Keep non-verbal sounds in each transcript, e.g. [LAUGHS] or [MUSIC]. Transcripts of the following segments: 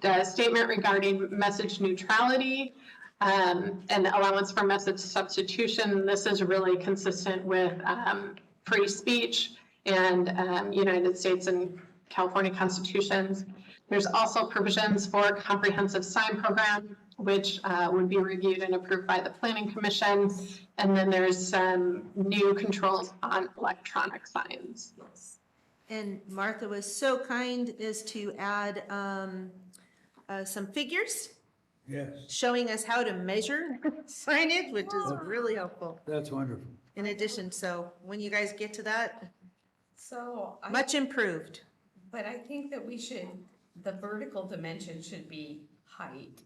the statement regarding message neutrality um, and allowance for message substitution. This is really consistent with um, free speech and um, United States and California constitutions. There's also provisions for comprehensive sign program, which uh, would be reviewed and approved by the planning commission. And then there's some new controls on electronic signs. And Martha was so kind as to add um, uh, some figures Yes, showing us how to measure signage, which is really helpful that's wonderful. in addition. So when you guys get to that, So, I- much improved. but I think that we should, the vertical dimension should be height,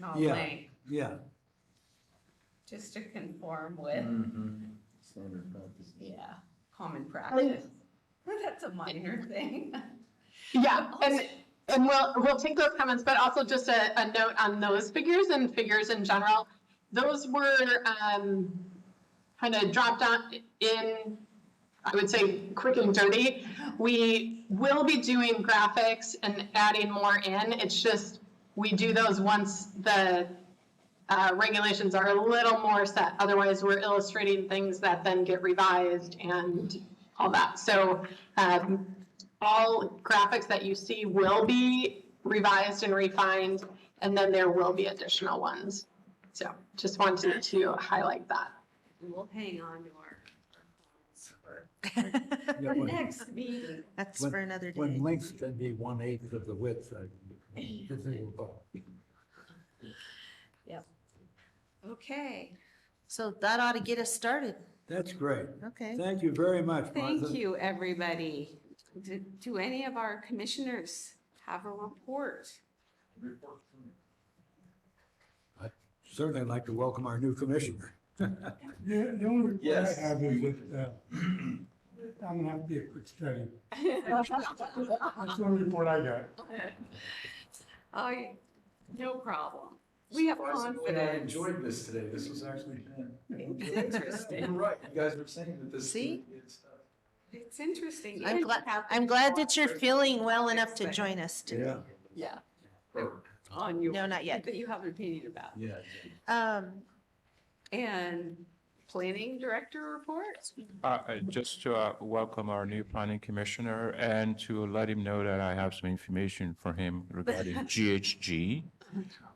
not Yeah. length, Yeah, just to conform with, Mm-hmm. Standard practice. yeah, common practice. [LAUGHS] That's a minor thing. Yeah, and, and we'll, we'll take those comments, but also just a, a note on those figures and figures in general. Those were, um, kind of dropped on in, I would say, quick and dirty. We will be doing graphics and adding more in. It's just, we do those once the, uh, regulations are a little more set. Otherwise, we're illustrating things that then get revised and all that. So, um, all graphics that you see will be revised and refined, and then there will be additional ones. So just wanted to highlight that. [LAUGHS] We'll hang on to our. our phones for- yeah, when, Next meeting. That's for another day. when length can be one eighth of the width, I. this is- Okay, So that ought to get us started. That's great. Okay. Thank you very much, Martha. Thank you, everybody. Do, do any of our commissioners have a report? Certainly like to welcome our new commissioner. The, the only report Yes. I have is that, uh, I'm gonna have to be a quick study. That's the only report I got. I, no problem. We have Surprisingly, I confidence. enjoyed this today. This was actually fun. It's interesting. You're right. You guys were saying that this. See? is, uh, It's interesting. I'm And glad, have- I'm glad that you're feeling well enough to join us today. Yeah. On your. No, not yet. That you have an opinion about. Yeah. Um, And planning director reports? Uh, uh, Just to uh, welcome our new planning commissioner and to let him know that I have some information for him regarding [LAUGHS] GHG,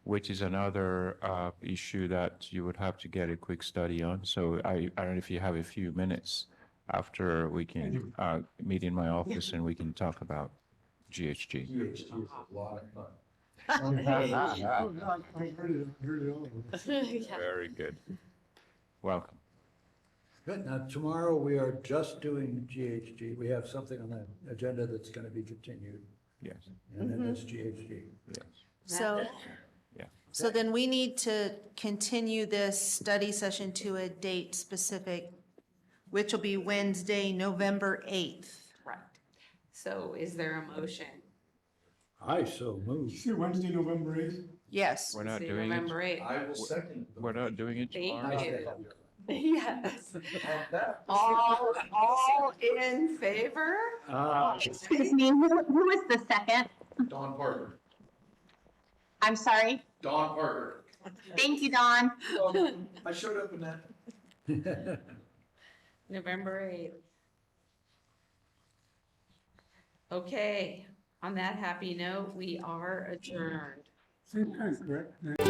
which is another uh, issue that you would have to get a quick study on. So I, I don't know if you have a few minutes after we can uh, meet in my office and we can talk about GHG. GHG is a lot of [LAUGHS] fun. I heard it, I heard it all. Very good. Welcome. Good. Now, tomorrow we are just doing GHG. We have something on the agenda that's going to be continued, Yes, and then it's GHG. yes. so. Yeah. So then we need to continue this study session to a date specific, which will be Wednesday, November eighth. Right. So is there a motion? I so You moved. see Wednesday, November eighth? Yes. We're not See, doing November it, eighth. I will second. the- we're not doing it Thank tomorrow. you. Nice to have you. [LAUGHS] Yes. On that- All, all in favor? Ah, Excuse me, who, who was the second? Don Parker. I'm sorry. Don Parker. Thank you, Don. Um, I showed up in that. [LAUGHS] November eighth. Okay, on that happy note, we are adjourned. Same time, correct?